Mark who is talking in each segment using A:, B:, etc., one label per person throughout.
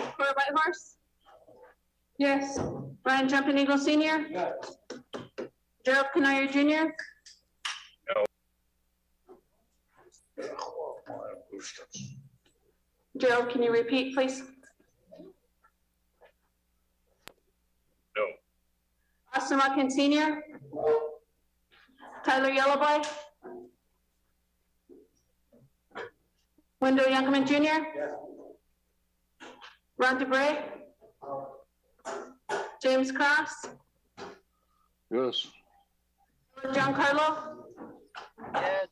A: Sarah Whitehorse? Yes. Ryan Jumping Eagle Senior?
B: Yes.
A: Gerald Canoyer Junior? Gerald, can you repeat, please?
C: No.
A: Austin Watkins Senior? Tyler Yellowboy? Wendell Youngman Junior? Ron DeBrey? James Cross?
D: Yes.
A: John Carlo?
E: yes,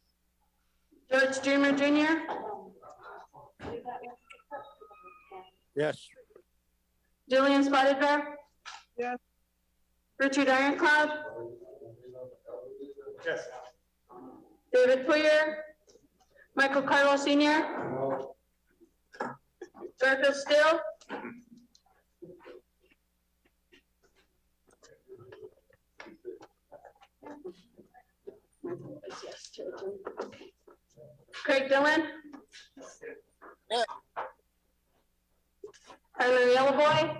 A: George Dreamer Junior?
D: Yes.
A: Julian Spotted Bear?
E: Yes.
A: Richard Ironclad?
B: Yes.
A: David Poyer, Michael Carlo Senior, Garfield Still. Craig Dillon.
E: Yeah.
A: Tyler Yellowboy,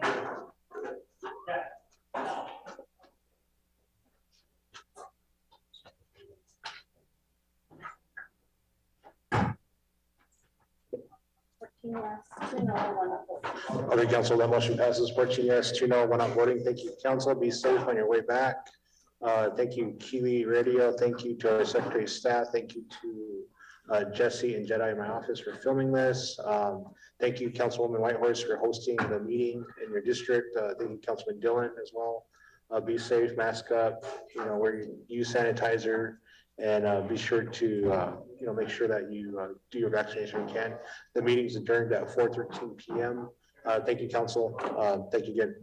B: Okay, council, that motion passes fourteen yes, two no, one not voting. Thank you, council. Be safe on your way back. Uh, thank you, Kiwi Radio. Thank you to our secretary of staff. Thank you to uh, Jesse and Jedi in my office for filming this. Um, thank you, Councilwoman Whitehorse, for hosting the meeting in your district. Uh, thank you, Councilman Dillon as well. Uh, be safe, mask up, you know, wear your use sanitizer and uh, be sure to, uh, you know, make sure that you uh, do your vaccination when you can. The meeting's adjourned at four thirteen PM. Uh, Thank you, council. Uh, Thank you again.